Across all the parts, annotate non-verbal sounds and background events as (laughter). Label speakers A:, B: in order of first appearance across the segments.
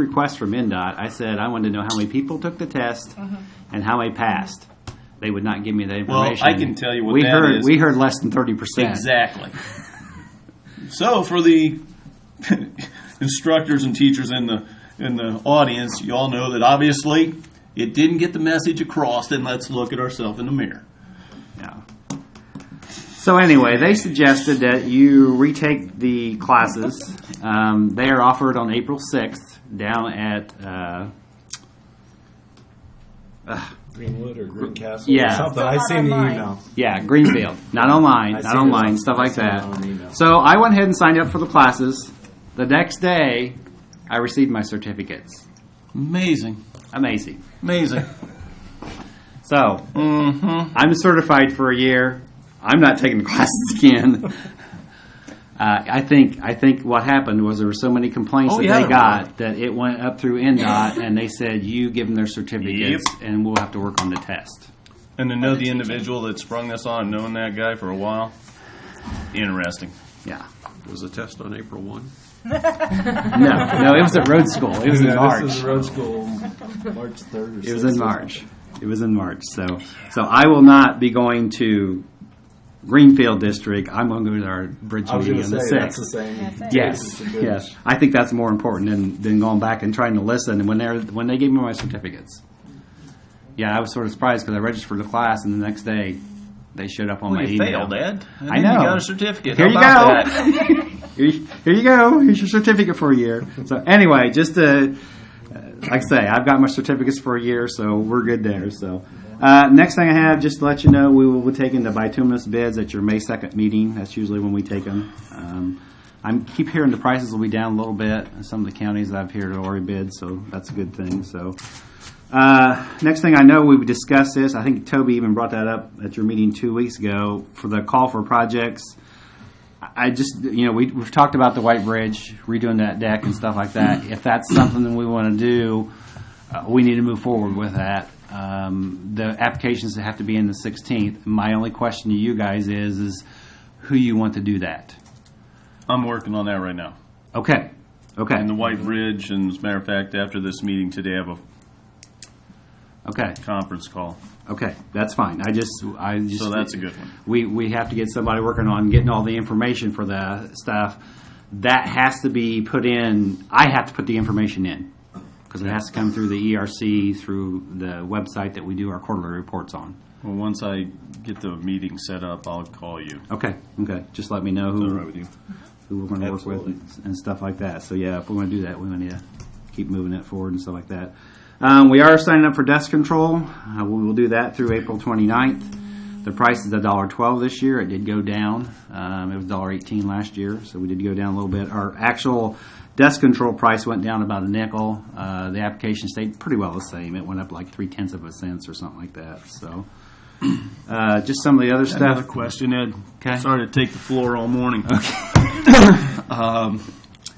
A: request from MinDOT, I said I wanted to know how many people took the test and how many passed. They would not give me the
B: Well, I
A: information.
B: can tell you what
A: we
B: that
A: heard,
B: is.
A: We heard less than thirty percent.
B: Exactly. so for the (laughs) instructors and teachers in the in the audience, you all know that obviously it didn't get the message across. Then let's look at ourselves in the mirror.
A: Yeah. So anyway, they suggested that you retake the classes. Um, they are offered on April sixth down at uh,
C: Greenwood or Greencastle
A: Yeah.
C: or something.
D: Still
C: I
D: not
C: seen the
D: online.
C: email.
A: Yeah, Greenfield. Not online,
C: I
A: not
C: see
A: online,
C: this.
A: stuff
C: I
A: like
C: see it on
A: that.
C: email.
A: So I went ahead and signed up for the classes. The next day, I received my certificates.
B: Amazing,
A: Amazing.
E: (laughs)
B: amazing. Mm-hmm.
A: So I'm certified for a year. I'm not taking the (laughs) classes again. uh, I think I think what happened was there were so many complaints
B: Oh,
A: that
B: yeah,
A: they
B: there
A: got that it went up through NDOT and they said you give them their certificates and we'll have to work on the test.
B: And to know the individual that sprung this on, knowing that guy for a while, interesting.
A: Yeah.
E: Was the test on April 1?
A: No, no, it was at road school. It was in March.
C: This is road school, March third. Or
A: It was in March. It was in March. So, so I will not be going to Greenfield District. I'm going to go to our bridge
C: I was
A: meeting on
C: going to
A: the
C: say that's the
A: sixth.
C: same.
D: That's it.
A: Yes,
C: Bridge.
A: yes. I think that's more important than, than going back and trying to listen. And when they are when they gave me my certificates, yeah, I was sort of surprised because I registered for the class and the next day they showed up on
B: Well,
A: my
B: you
A: email.
B: failed, Ed. And
A: I
B: then
A: know.
B: You got a certificate.
A: Here
B: How
A: you
B: about
A: go.
B: that?
A: (laughs) here, you- here you go. Here's your certificate for a year. So anyway, just to, uh, like I say, I've got my certificates for a year, so we're good there. So uh, next thing I have, just to let you know, we will be taking the bituminous bids at your May 2nd meeting. That's usually when we take them. Um, I'm keep hearing the prices will be down a little bit. Some of the counties I've heard are already bid, so that's a good thing. So. Uh, next thing I know, we've discussed this. I think Toby even brought that up at your meeting two weeks ago for the call for projects. I just, you know, we, we've talked about the White Bridge, redoing that deck and stuff like that. If that's something that we want to do, uh, we need to move forward with that. Um, the applications have to be in the 16th. My only question to you guys is, is who you want to do that?
B: I'm working on that right now.
A: Okay, okay,
B: And the White Bridge, and as a matter of fact, after this meeting today, I have a
A: okay,
B: conference call.
A: okay. That's fine. I just, I just.
B: So that's a good one.
A: we, we have to get somebody working on getting all the information for the stuff. That has to be put in, I have to put the information in, because it has to come through the ERC, through the website that we do our quarterly reports on.
B: Well, once I get the meeting set up, I'll call you.
A: Okay, okay, just let me know who,
B: you?
A: who we're gonna work with
B: Absolutely.
A: and- and stuff like that. So yeah, if we're gonna do that, we're gonna need to keep moving it forward and stuff like that. Um, we are signing up for desk control. Uh, we will do that through April 29th. The price is a dollar twelve this year. It did go down. Um, it was dollar eighteen last year, so we did go down a little bit. Our actual desk control price went down about a nickel. Uh, the application stayed pretty well the same. It went up like three tenths of a cent or something like that. So. (clears throat) Uh, just some of the other
B: Another
A: stuff.
B: question, Ed.
A: Okay.
B: Sorry to take the floor all morning. um,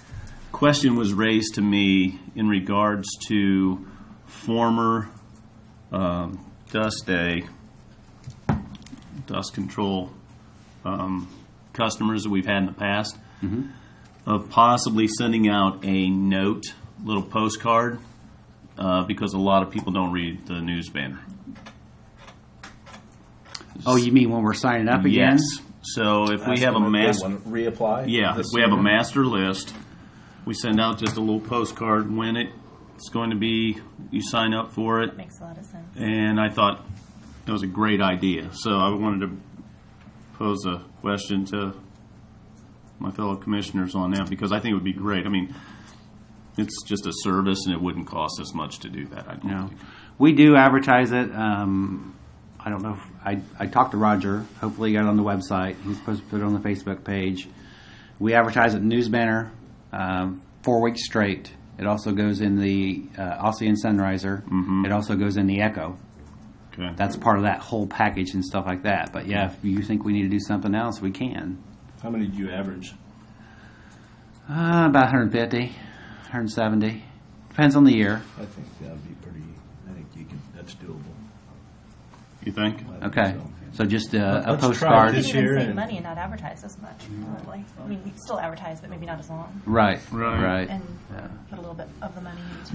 B: (coughs) question was raised to me in regards to former um, Dust Day dust control um, customers that we've had in the past
C: Mm-hmm.
B: of possibly sending out a note, little postcard, uh, because a lot of people don't read the news banner.
A: Oh, you mean when we're signing up again?
B: Yes. So if we
C: Ask
B: have a
C: them if they
B: master,
C: wanna Reapply.
B: yeah, if
C: this
B: we have a
C: year.
B: master list, we send out just a little postcard when it, it's going to be, you sign up for it.
D: Makes a lot of sense.
B: And I thought that was a great idea. So I wanted to pose a question to my fellow commissioners on that because I think it would be great. I mean, it's just a service and it wouldn't cost us much to do that, I don't
A: No,
B: think.
A: we do advertise it. Um, I don't know. If, I I talked to Roger. Hopefully, he got it on the website. He's supposed to put it on the Facebook page. We advertise it in news banner um, four weeks straight. It also goes in the uh, Aussie and Sunriser. It also goes in the Echo.
B: Okay.
A: That's part of that whole package and stuff like that. But yeah, if you think we need to do something else, we can.
C: How many do you average?
A: Uh, about 150, 170. Depends on the year.
F: I think that'd be pretty, I think you can, that's doable.
B: you think?
A: Okay, so just uh, a
C: Let's try it
A: postcard.
C: this
F: We
C: year
F: even save
C: and-
F: money and not advertise as much, probably. I mean, we still advertise, but maybe not as long.
A: Right,
B: Right.
A: right.
F: And put a little bit of the money into